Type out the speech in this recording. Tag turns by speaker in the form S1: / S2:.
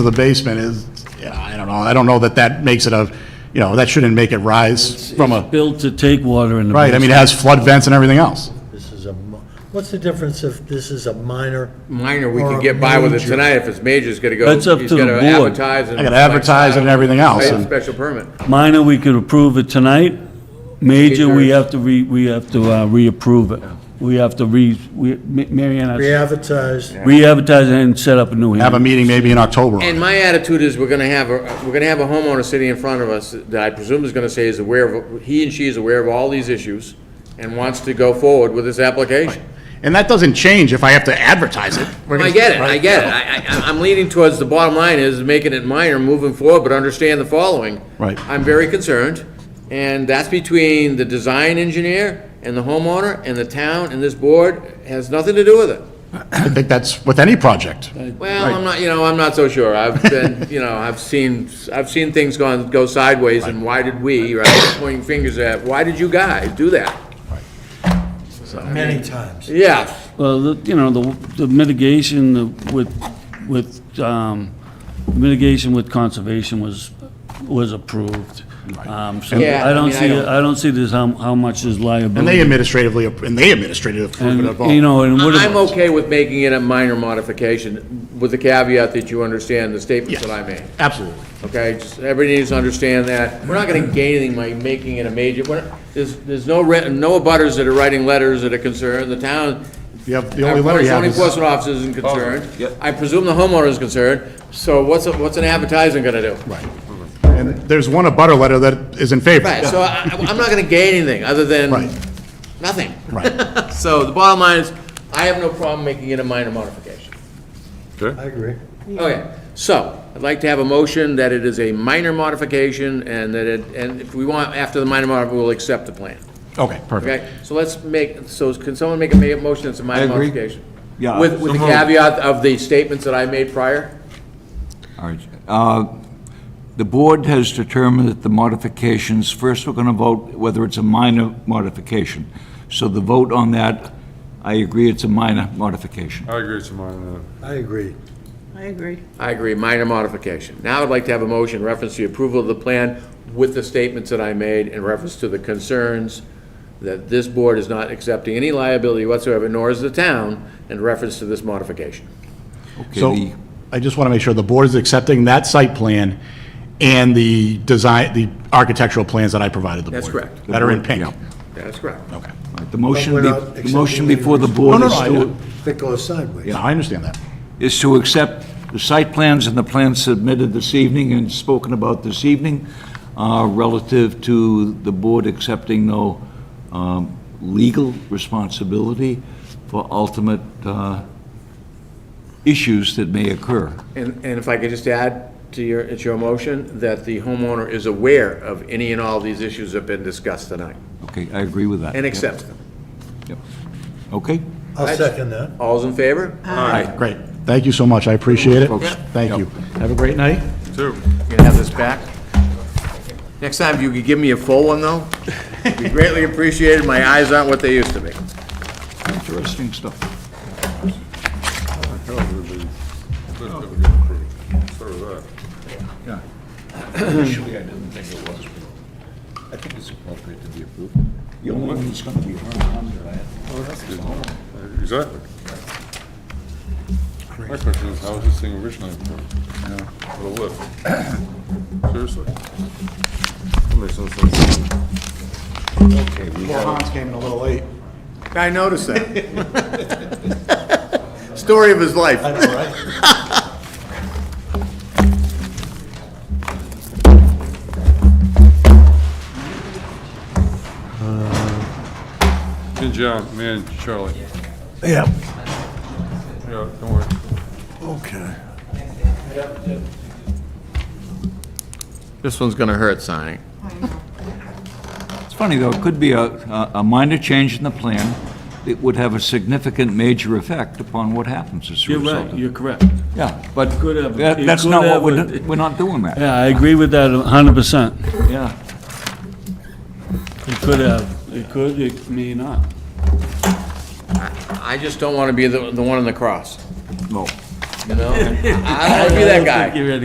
S1: the basement is, yeah, I don't know, I don't know that that makes it a, you know, that shouldn't make it rise from
S2: It's
S1: a,
S2: Built to take water in the.
S1: right, I mean, it has flood vents and everything else.
S3: This is a, mo- what's the difference if this is a minor?
S4: Minor, we
S3: Or
S4: can get by with it
S3: major.
S4: tonight, if it's major, it's gonna go.
S2: That's up
S4: he's
S2: to the
S4: gotta
S2: board.
S4: advertise and
S1: I gotta advertise it and everything else,
S4: Right,
S1: and-
S4: Special permit.
S2: Minor, we could approve it tonight. Major, we have to re, we have to uh, reapprove it. We have to re, we, Ma- Mary Ann, I-
S3: Re-advertised,
S2: re-advertise it and set up a new
S1: Have a
S2: hearing.
S1: meeting maybe in October.
S4: And my attitude is, we're gonna have, a we're gonna have a homeowner sitting in front of us that I presume is gonna say is aware of, he and she is aware of all these issues and wants to go forward with this application.
S1: And that doesn't change if I have to advertise it. We're
S4: I
S1: gonna-
S4: get it, I
S1: right?
S4: get it. I, I, I'm leaning towards, the bottom line is making it minor, moving forward, but understand the following.
S1: Right.
S4: I'm very concerned, and that's between the design engineer and the homeowner and the town and this board, has nothing to do with it.
S1: I think that's with any project.
S4: Well, I'm not, you know, I'm not so sure. I've been, you know, I've seen, I've seen things gone, go sideways, and why did we, right, pointing fingers at, why did you guys do that?
S3: many times.
S4: Yeah,
S2: Well, the- you know, the the mitigation the- with, with, um, mitigation with conservation was, was approved. Um, so
S4: Yeah,
S2: I
S4: I
S2: don't
S4: mean, I
S2: see,
S4: don't-
S2: I don't see this, how, how much is
S1: And they
S2: liability.
S1: administratively, and they administratively approve it of all.
S2: And, you know, and what.
S4: I'm okay with making it a minor modification, with the caveat that you understand the statements
S1: Yes.
S4: that I made.
S1: Absolutely.
S4: Okay, just, everybody needs to understand that. We're not gonna gain anything by making it a major, we're, there's, there's no re, no abutters that are writing letters that are concerned, the town.
S1: You have, the only letter you have
S4: Our zoning
S1: is,
S4: enforcement officer isn't concerned. I presume the homeowner is concerned, so what's, a- what's an advertising gonna do? Right.
S1: and there's one abutter letter that is in favor.
S4: Right, so I, I- I'm not gonna gain anything, other than
S1: Right.
S4: nothing.
S1: Right.
S4: So the bottom line is, I have no problem making it a minor modification.
S3: I agree.
S4: Okay, so, I'd like to have a motion that it is a minor modification, and that it, and if we want, after the minor mod, we'll accept the plan.
S1: Okay, perfect.
S4: Okay, so let's make, so can someone make a ma- motion that's a minor
S5: agree.
S4: modification?
S5: Yeah,
S4: With, with the
S5: so moved.
S4: caveat of the statements that I made prior?
S5: All right. Uh, The board has determined that the modifications, first we're going to vote whether it's a minor modification. So the vote on that, I agree it's a minor modification.
S4: Oh.
S6: I agree with mine.
S3: I agree.
S7: I agree.
S4: I agree, minor modification. Now I'd like to have a motion in reference to the approval of the plan with the statements that I made in reference to the concerns that this board is not accepting any liability whatsoever, nor is the town, in reference to this modification.
S5: Okay,
S1: So
S5: the-
S1: I just want to make sure the board is accepting that site plan and the design, the architectural plans that I provided the board.
S4: That's correct.
S1: That are in pink.
S5: Yeah.
S4: That's correct.
S1: Okay.
S5: The motion,
S3: But we're
S5: be-
S3: not
S5: the motion
S3: accepting
S5: before the
S3: any-
S5: board
S1: No,
S5: is
S1: no, no, I
S5: to,
S3: That goes sideways.
S1: No, I understand that.
S5: is to accept the site plans and the plans submitted this evening and spoken about this evening uh, relative to the board accepting no um, legal responsibility for ultimate uh, issues that may occur.
S4: And, and if I could just add to your, it's your motion, that the homeowner is aware of any and all these issues that have been discussed tonight,
S5: Okay, I agree with that.
S4: and accepts them.
S5: Yep. Okay?
S3: I'll second that.
S4: All's in favor?
S1: All right, great. Thank you so much. I appreciate it.
S5: Folks.
S1: Thank you. Have a great night.
S6: Two.
S4: You gonna have this back? Next time, if you could give me a full one, though, it'd be greatly appreciated. My eyes aren't what they used to be.
S5: Interesting stuff. Yeah. Initially, I didn't think it was, but I think it's appropriate to be approved. Oh, The only one that's gonna be harmed,
S6: Exactly. My question is, how was this thing originally approved? What a lift. Seriously. That makes no sense.
S1: Well, Hans came in a little late.
S4: I noticed that. Story of his life.
S3: That's all right.
S6: And John, man, Charlie.
S3: Yeah,
S6: Yeah, don't worry.
S3: okay.
S4: This one's gonna hurt signing.
S5: It's funny, though, it could be a, a a minor change in the plan that would have a significant major effect upon what happens as a
S2: You're
S5: result.
S2: right,
S5: of-
S2: you're correct.
S5: Yeah, but
S2: could have-
S5: that-
S2: it
S5: that's
S2: could
S5: not
S2: have
S5: what we're,
S2: a-
S5: do- we're not doing that,
S2: Yeah, I agree with that a hundred percent.
S5: yeah.
S2: It could have, it could, it may not.
S4: I just don't wanna be the, the one on the cross.
S5: No.
S8: you know? I don't wanna be that guy.
S4: You're ready.